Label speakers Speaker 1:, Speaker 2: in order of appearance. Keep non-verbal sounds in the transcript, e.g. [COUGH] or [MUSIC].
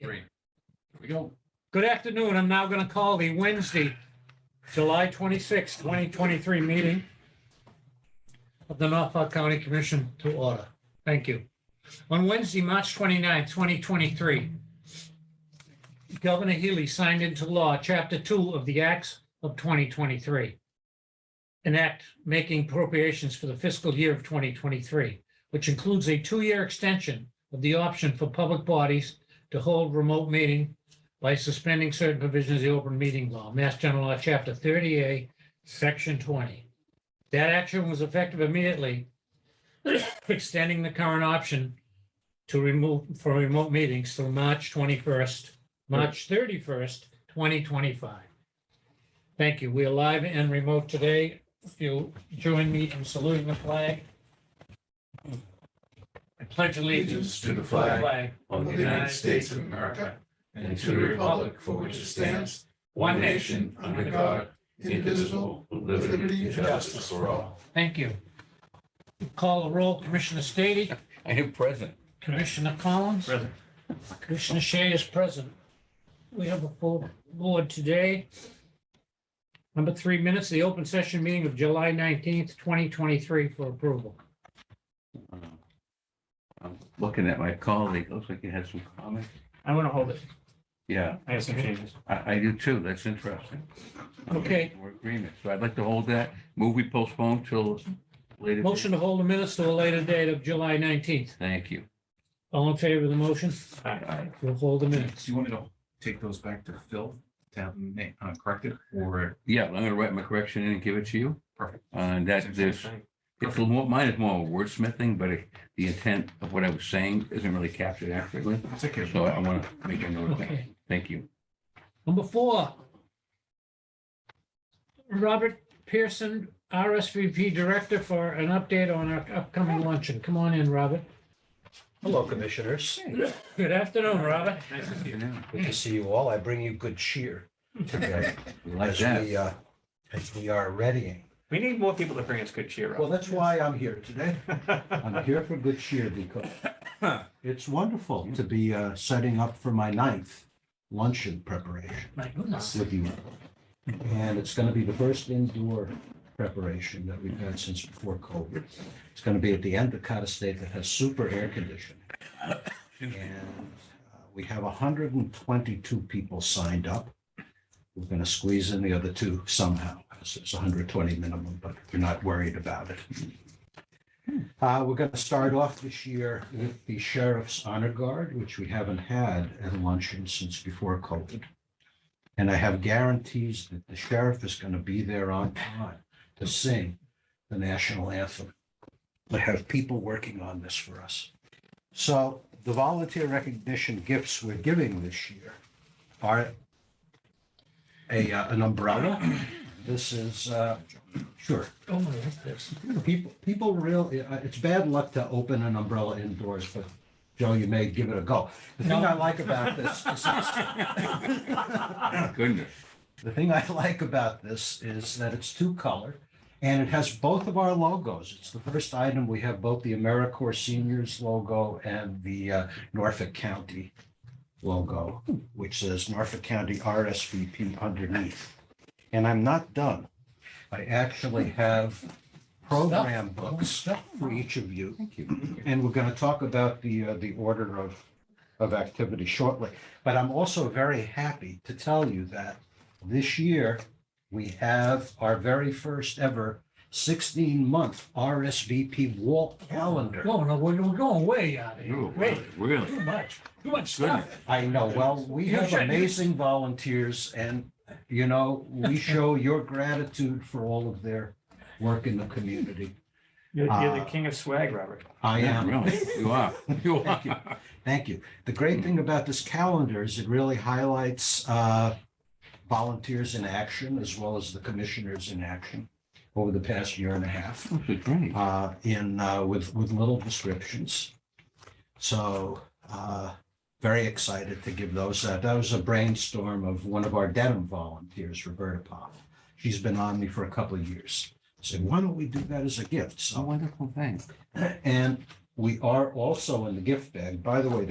Speaker 1: Three.
Speaker 2: Here we go. Good afternoon. I'm now going to call the Wednesday, July 26, 2023 meeting of the Norfolk County Commission to order. Thank you. On Wednesday, March 29, 2023, Governor Healy signed into law Chapter 2 of the Acts of 2023, an act making appropriations for the fiscal year of 2023, which includes a two-year extension of the option for public bodies to hold remote meeting by suspending certain provisions of the open meeting law, Mass General Law, Chapter 38, Section 20. That action was effective immediately, [COUGHS] extending the current option to remove, for remote meetings through March 21st, March 31st, 2025. Thank you. We are live and remote today. If you'll join me in saluting the flag. I pledge allegiance
Speaker 3: allegiance to the
Speaker 2: to the
Speaker 3: flag
Speaker 2: flag
Speaker 3: of the United States of America and to the republic for which it stands, one nation, under God, indivisible, with liberty and justice for all.
Speaker 2: Thank you. Call the roll, Commissioner Stady,
Speaker 4: I am present.
Speaker 2: Commissioner Collins. Present. Commissioner Shea is present. We have a full board today. Number three minutes, the open session meeting of July nineteenth, twenty twenty-three for approval.
Speaker 4: I'm Looking at my colleague, looks like you had some comments.
Speaker 5: I'm gonna hold it.
Speaker 4: Yeah,
Speaker 5: I have some changes.
Speaker 4: I, I do too. That's interesting.
Speaker 2: Okay.
Speaker 4: We're agreement. So I'd like to hold that. Move we postpone till later.
Speaker 2: Motion to hold the minutes to a later date of July nineteenth.
Speaker 4: Thank you.
Speaker 2: All in favor of the motion?
Speaker 4: Aye.
Speaker 2: We'll hold the
Speaker 3: Do
Speaker 2: minutes.
Speaker 3: you want me to take those back to Phil to have them na- uh, corrected or?
Speaker 4: Yeah, I'm gonna write my correction in and give it to you.
Speaker 3: Perfect.
Speaker 4: Uh, And that there's, it's a more, mine is more wordsmithing, but it- the intent of what I was saying isn't really captured accurately.
Speaker 3: It's okay.
Speaker 4: So I want to make a note of that.
Speaker 2: Okay.
Speaker 4: Thank you.
Speaker 2: Number four. Robert Pearson, RSVP Director for an update on our upcoming luncheon. Come on in, Robert.
Speaker 6: Hello, Commissioners.
Speaker 2: Good afternoon, Robert.
Speaker 6: Good to see you all. I bring you good cheer today
Speaker 4: We [LAUGHS] Like
Speaker 6: as
Speaker 4: that.
Speaker 6: we, uh, as we are readying.
Speaker 5: We need more people to bring us good cheer
Speaker 6: Well,
Speaker 5: up.
Speaker 6: that's why I'm here
Speaker 4: [LAUGHS]
Speaker 6: today. I'm here for good cheer because it's wonderful to be uh, setting up for my ninth luncheon preparation
Speaker 2: My goodness.
Speaker 6: with you. And it's going to be the first indoor preparation that we've had since before COVID. It's going to be at the Endicott Estate that has super air conditioning.
Speaker 4: Excuse me.
Speaker 6: And uh, we have hundred and twenty-two people signed up. We're gonna squeeze in the other two somehow, so it's hundred twenty minimum, but we're not worried about it. Uh, we're gonna start off this year with the Sheriff's Honor Guard, which we haven't had at luncheon since before COVID. And I have guarantees that the sheriff is gonna be there on time to sing the national anthem. I have people working on this for us. So the volunteer recognition gifts we're giving this year are a, uh, an umbrella. This is, uh, sure,
Speaker 2: Oh, my goodness.
Speaker 6: people, people real, uh, it's bad luck to open an umbrella indoors, but Joe, you may give it a go. The thing I like about this is uh,
Speaker 4: Goodness.
Speaker 6: The thing I [LAUGHS] like about this is that it's two-color and it has both of our logos. It's the first item. We have both the AmeriCorps Seniors logo and the uh, Norfolk County logo, which says Norfolk County RSVP underneath. And I'm not done. I actually have program books for each of you.
Speaker 4: Oh, Thank you.
Speaker 6: And we're going to talk about the, uh, the order of, of activity shortly. But I'm also very happy to tell you that this year, we have our very first ever 16-month RSVP wall calendar.
Speaker 2: Whoa, no, we're we're going way out of here.
Speaker 4: Ooh,
Speaker 2: Way
Speaker 4: Really?
Speaker 2: Too much, too much
Speaker 4: Goodness.
Speaker 2: stuff.
Speaker 6: I know, well, we
Speaker 2: You
Speaker 6: have
Speaker 2: should-
Speaker 6: amazing volunteers and, you know, we show your gratitude for all of their work in the community.
Speaker 5: You're, you're the
Speaker 6: Uh,
Speaker 5: king of swag, Robert.
Speaker 6: I
Speaker 4: Yeah,
Speaker 6: am
Speaker 4: really. [LAUGHS] You are. You
Speaker 6: Thank you.
Speaker 4: are.
Speaker 6: Thank you. The great thing about this calendar is it really highlights uh, volunteers in action as well as the commissioners in action over the past year and a half
Speaker 4: This is great.
Speaker 6: uh, in, uh, with, with little descriptions. So uh, very excited to give those. out. That was a brainstorm of one of our Dedham volunteers, Roberta Pop. She's been on me for a couple of years. Said, why don't we do that as a gift?
Speaker 4: A
Speaker 6: So,
Speaker 4: wonderful thing.
Speaker 6: and we are also in the gift bag. By the way,